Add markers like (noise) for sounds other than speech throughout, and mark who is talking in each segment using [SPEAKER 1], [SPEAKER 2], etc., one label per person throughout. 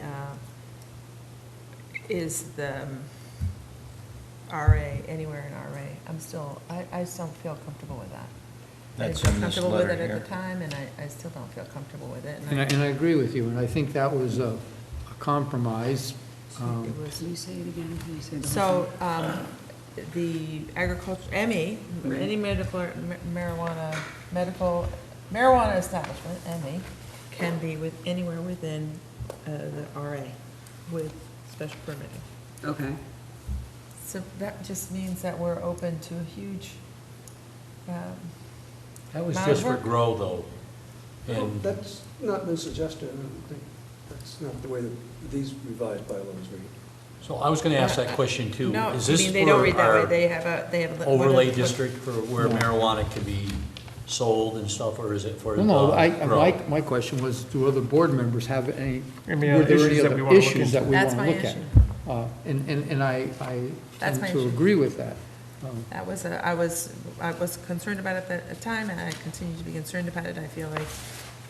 [SPEAKER 1] uh, is the um, RA, anywhere in RA, I'm still, I, I still don't feel comfortable with that.
[SPEAKER 2] That's in
[SPEAKER 1] I didn't feel
[SPEAKER 2] this
[SPEAKER 1] comfortable with
[SPEAKER 2] letter
[SPEAKER 1] it
[SPEAKER 2] here.
[SPEAKER 1] at the time, and I, I still don't feel comfortable with it.
[SPEAKER 3] And I, and I agree with you, and I think that was a a compromise. um,
[SPEAKER 4] Can you say it again? Can you say the whole
[SPEAKER 1] So, um, the agriculture, ME, any medical or ma- marijuana, medical, marijuana establishment, ME, can be with, anywhere within, uh, the RA with special permitting.
[SPEAKER 4] thing? Okay.
[SPEAKER 1] So that just means that we're open to a huge, um,
[SPEAKER 2] That was
[SPEAKER 1] Amount of
[SPEAKER 2] just for
[SPEAKER 1] work.
[SPEAKER 2] grow, though.
[SPEAKER 1] Oh,
[SPEAKER 5] Well,
[SPEAKER 2] And
[SPEAKER 5] That's not been suggested, I don't think, that's not the way that these revised bylaws read.
[SPEAKER 2] so I was going to ask that question, too.
[SPEAKER 1] no,
[SPEAKER 2] Is
[SPEAKER 1] I
[SPEAKER 2] this
[SPEAKER 1] mean, they don't
[SPEAKER 2] for
[SPEAKER 1] read that way,
[SPEAKER 2] our
[SPEAKER 1] they have a, they have. a-
[SPEAKER 2] overlay
[SPEAKER 1] what-
[SPEAKER 2] district for where
[SPEAKER 3] No.
[SPEAKER 2] marijuana can be sold and stuff, or is it for?
[SPEAKER 3] Well, no,
[SPEAKER 2] uh,
[SPEAKER 3] I,
[SPEAKER 2] grow?
[SPEAKER 3] my, my question was, do other board members have any, were
[SPEAKER 6] Any other
[SPEAKER 3] there any
[SPEAKER 6] issues that we
[SPEAKER 3] other
[SPEAKER 6] wanna look
[SPEAKER 3] issues that
[SPEAKER 6] into?
[SPEAKER 3] we want
[SPEAKER 1] That's
[SPEAKER 3] to
[SPEAKER 1] my
[SPEAKER 3] look at?
[SPEAKER 1] issue.
[SPEAKER 3] Uh, And, and, and I, I
[SPEAKER 1] That's
[SPEAKER 3] tend
[SPEAKER 1] my
[SPEAKER 3] to
[SPEAKER 1] issue.
[SPEAKER 3] agree with that. Um,
[SPEAKER 1] That was, a- I was, I was concerned about it at the time, and I continue to be concerned about it. I feel like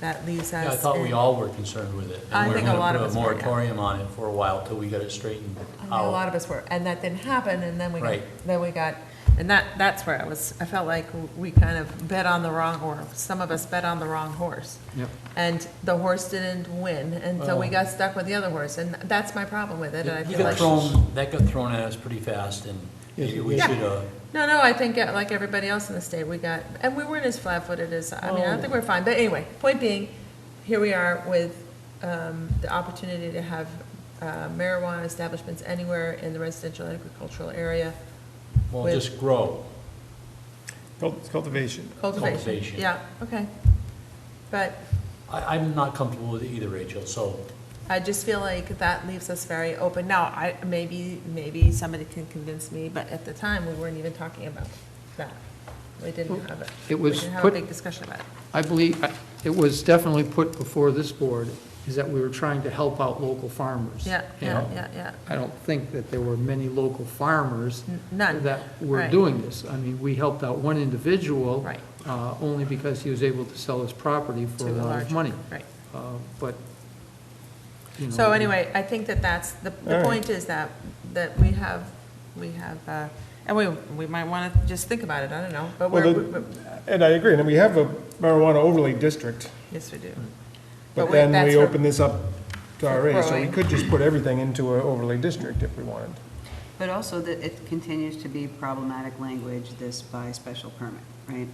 [SPEAKER 1] that leaves us.
[SPEAKER 2] Yeah, I thought we
[SPEAKER 1] in-
[SPEAKER 2] all were concerned with it.
[SPEAKER 1] I think a lot of us
[SPEAKER 2] And
[SPEAKER 1] were,
[SPEAKER 2] we're
[SPEAKER 1] yeah.
[SPEAKER 2] going to put a moratorium on it for a while till we got it straightened
[SPEAKER 1] I mean, a lot
[SPEAKER 2] out.
[SPEAKER 1] of us were, and that didn't happen, and then we, got-
[SPEAKER 2] Right.
[SPEAKER 1] then we got, and that, that's where I was, I felt like we kind of bet on the wrong, or some of us bet on the wrong horse.
[SPEAKER 3] Yep.
[SPEAKER 1] And the horse didn't win, and so we
[SPEAKER 2] Well-
[SPEAKER 1] got stuck with the other horse, and that's my problem with it, and I
[SPEAKER 2] Oh. You
[SPEAKER 1] feel
[SPEAKER 2] got
[SPEAKER 1] like.
[SPEAKER 2] thrown, that got thrown at us pretty fast, and
[SPEAKER 3] Yes,
[SPEAKER 2] maybe
[SPEAKER 3] it
[SPEAKER 2] we
[SPEAKER 3] did.
[SPEAKER 2] should, uh,
[SPEAKER 1] No, no, I think, uh, like everybody else in the state, we got, and we weren't as flat-footed as, I mean, I
[SPEAKER 2] Oh.
[SPEAKER 1] don't think we're fine, but anyway, point being, here we are with, um, the opportunity to have uh, marijuana establishments anywhere in the residential agricultural area,
[SPEAKER 2] well,
[SPEAKER 1] With-
[SPEAKER 2] just grow.
[SPEAKER 6] Cult- Cultivation.
[SPEAKER 1] cultivation,
[SPEAKER 2] Cultivation.
[SPEAKER 1] yeah, okay. But
[SPEAKER 2] I, I'm not comfortable with it either, Rachel, so
[SPEAKER 1] I just feel like that leaves us very open, now, I, maybe, maybe somebody can convince me, but at the time, we weren't even talking about that. We didn't have it,
[SPEAKER 3] It
[SPEAKER 1] we
[SPEAKER 3] was
[SPEAKER 1] didn't have a
[SPEAKER 3] put-
[SPEAKER 1] big discussion about it.
[SPEAKER 3] I believe, I- it was definitely put before this board, is that we were trying to help out local farmers.
[SPEAKER 1] Yeah, yeah,
[SPEAKER 3] And
[SPEAKER 1] yeah, yeah.
[SPEAKER 3] I don't think that there were many local farmers
[SPEAKER 1] N- None.
[SPEAKER 3] that were
[SPEAKER 1] Right.
[SPEAKER 3] doing this. I mean, we helped out one individual.
[SPEAKER 1] Right.
[SPEAKER 3] uh, Only because he was able to sell his property
[SPEAKER 1] to
[SPEAKER 3] for a
[SPEAKER 1] the
[SPEAKER 3] lot of
[SPEAKER 1] larger-
[SPEAKER 3] money.
[SPEAKER 1] Right.
[SPEAKER 3] Uh, But, you know.
[SPEAKER 1] So anyway, I think that that's, the,
[SPEAKER 6] All
[SPEAKER 1] the
[SPEAKER 6] right.
[SPEAKER 1] point is that, that we have, we have, uh, and we, we might want to just think about it, I don't know, but
[SPEAKER 6] Well,
[SPEAKER 1] we're,
[SPEAKER 6] the-
[SPEAKER 1] we-
[SPEAKER 6] And I agree, and we have a marijuana overlay district,
[SPEAKER 1] yes, we do.
[SPEAKER 6] but
[SPEAKER 1] we-
[SPEAKER 6] then
[SPEAKER 1] that's
[SPEAKER 6] we
[SPEAKER 1] for-
[SPEAKER 6] open this up
[SPEAKER 1] for
[SPEAKER 6] to RA, so we
[SPEAKER 1] growing.
[SPEAKER 6] could just put everything into an overlay district if we wanted.
[SPEAKER 4] But also that it continues to be problematic language, this by special permit, right?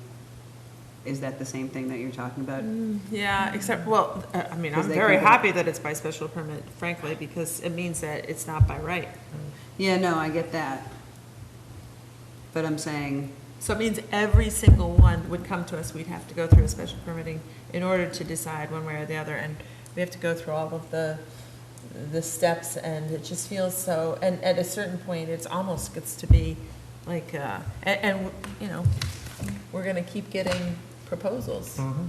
[SPEAKER 4] Is that the same thing that you're talking about?
[SPEAKER 1] Yeah, except, well, uh, I mean, I'm
[SPEAKER 4] 'Cause they
[SPEAKER 1] very
[SPEAKER 4] can do it.
[SPEAKER 1] happy that it's by special permit, frankly, because it means that it's not by right.
[SPEAKER 4] Yeah, no, I get that. But I'm saying,
[SPEAKER 1] So it means every single one would come to us, we'd have to go through a special permitting in order to decide one way or the other, and we have to go through all of the, the steps, and it just feels so, and at a certain point, it's almost gets to be like, uh, and, and, you know, we're gonna keep getting proposals.
[SPEAKER 6] Mm.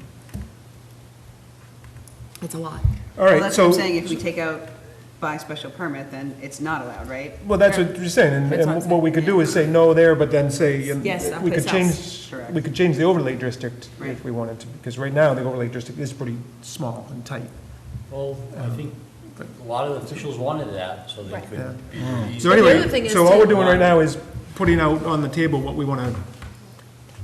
[SPEAKER 1] It's a lot.
[SPEAKER 6] All
[SPEAKER 4] well,
[SPEAKER 6] right,
[SPEAKER 4] that's what I'm
[SPEAKER 6] so,
[SPEAKER 4] saying, if we take out by special permit, then it's not allowed, right?
[SPEAKER 6] well, that's what you're saying, and-
[SPEAKER 1] That's what I'm
[SPEAKER 6] and what we
[SPEAKER 1] saying,
[SPEAKER 6] could do is say no there, but then say, and
[SPEAKER 1] Yes,
[SPEAKER 6] we could
[SPEAKER 1] someplace
[SPEAKER 6] change,
[SPEAKER 4] else.
[SPEAKER 6] we could change the overlay district
[SPEAKER 4] Right.
[SPEAKER 6] if we wanted to, because right now, the overlay district is pretty small and tight.
[SPEAKER 2] Well, I think a lot of officials wanted that, so they
[SPEAKER 1] Right.
[SPEAKER 2] could. be-
[SPEAKER 6] So
[SPEAKER 1] But the other
[SPEAKER 6] anyway,
[SPEAKER 1] thing is
[SPEAKER 6] so all we're
[SPEAKER 1] to-
[SPEAKER 6] doing right now is putting out on the table what we want to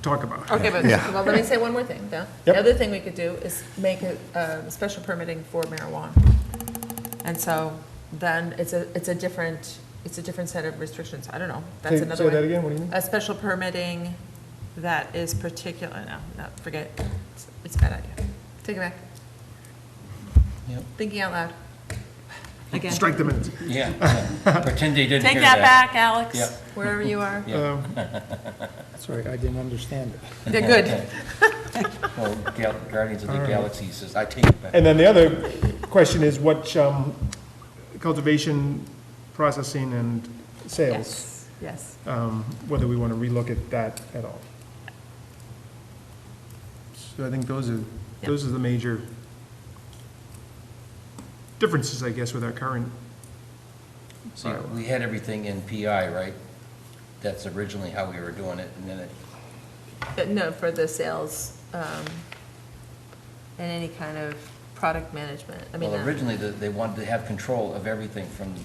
[SPEAKER 6] talk about.
[SPEAKER 1] Okay, but, well, let me say one more thing, though. The
[SPEAKER 6] Yep.
[SPEAKER 1] other thing we could do is make a, uh special permitting for marijuana. And so then it's a, it's a different, it's a different set of restrictions. I don't know.
[SPEAKER 6] Say-
[SPEAKER 1] That's another
[SPEAKER 6] Say that
[SPEAKER 1] way.
[SPEAKER 6] again, what do you mean?
[SPEAKER 1] A special permitting that is particular, no, no, forget it. It's- It's a bad idea. Take it back.
[SPEAKER 7] Yep.
[SPEAKER 1] Thinking out loud. Again,
[SPEAKER 6] Strike the minutes.
[SPEAKER 7] Yeah, pretend they didn't
[SPEAKER 1] take
[SPEAKER 7] hear
[SPEAKER 1] that
[SPEAKER 7] that.
[SPEAKER 1] back, Alex,
[SPEAKER 7] Yep.
[SPEAKER 1] wherever you are.
[SPEAKER 7] (laughs) Yeah.
[SPEAKER 6] Um,
[SPEAKER 3] Sorry, I didn't understand it.
[SPEAKER 1] Yeah, good.
[SPEAKER 7] Well, Gal- Guardians of the Galaxy says, I take it back.
[SPEAKER 6] And then the other question is what um, cultivation, processing, and sales,
[SPEAKER 1] Yes, yes.
[SPEAKER 6] um, whether we want to relook at that at all. So I think those are, those are the major differences, I guess, with our current,
[SPEAKER 7] See, we had everything in PI, right? That's originally how we were doing it, and then it,
[SPEAKER 1] Uh, No, for the sales, um, and any kind of product management, I mean.
[SPEAKER 7] well,
[SPEAKER 1] uh,
[SPEAKER 7] originally, the- they wanted to have control of everything from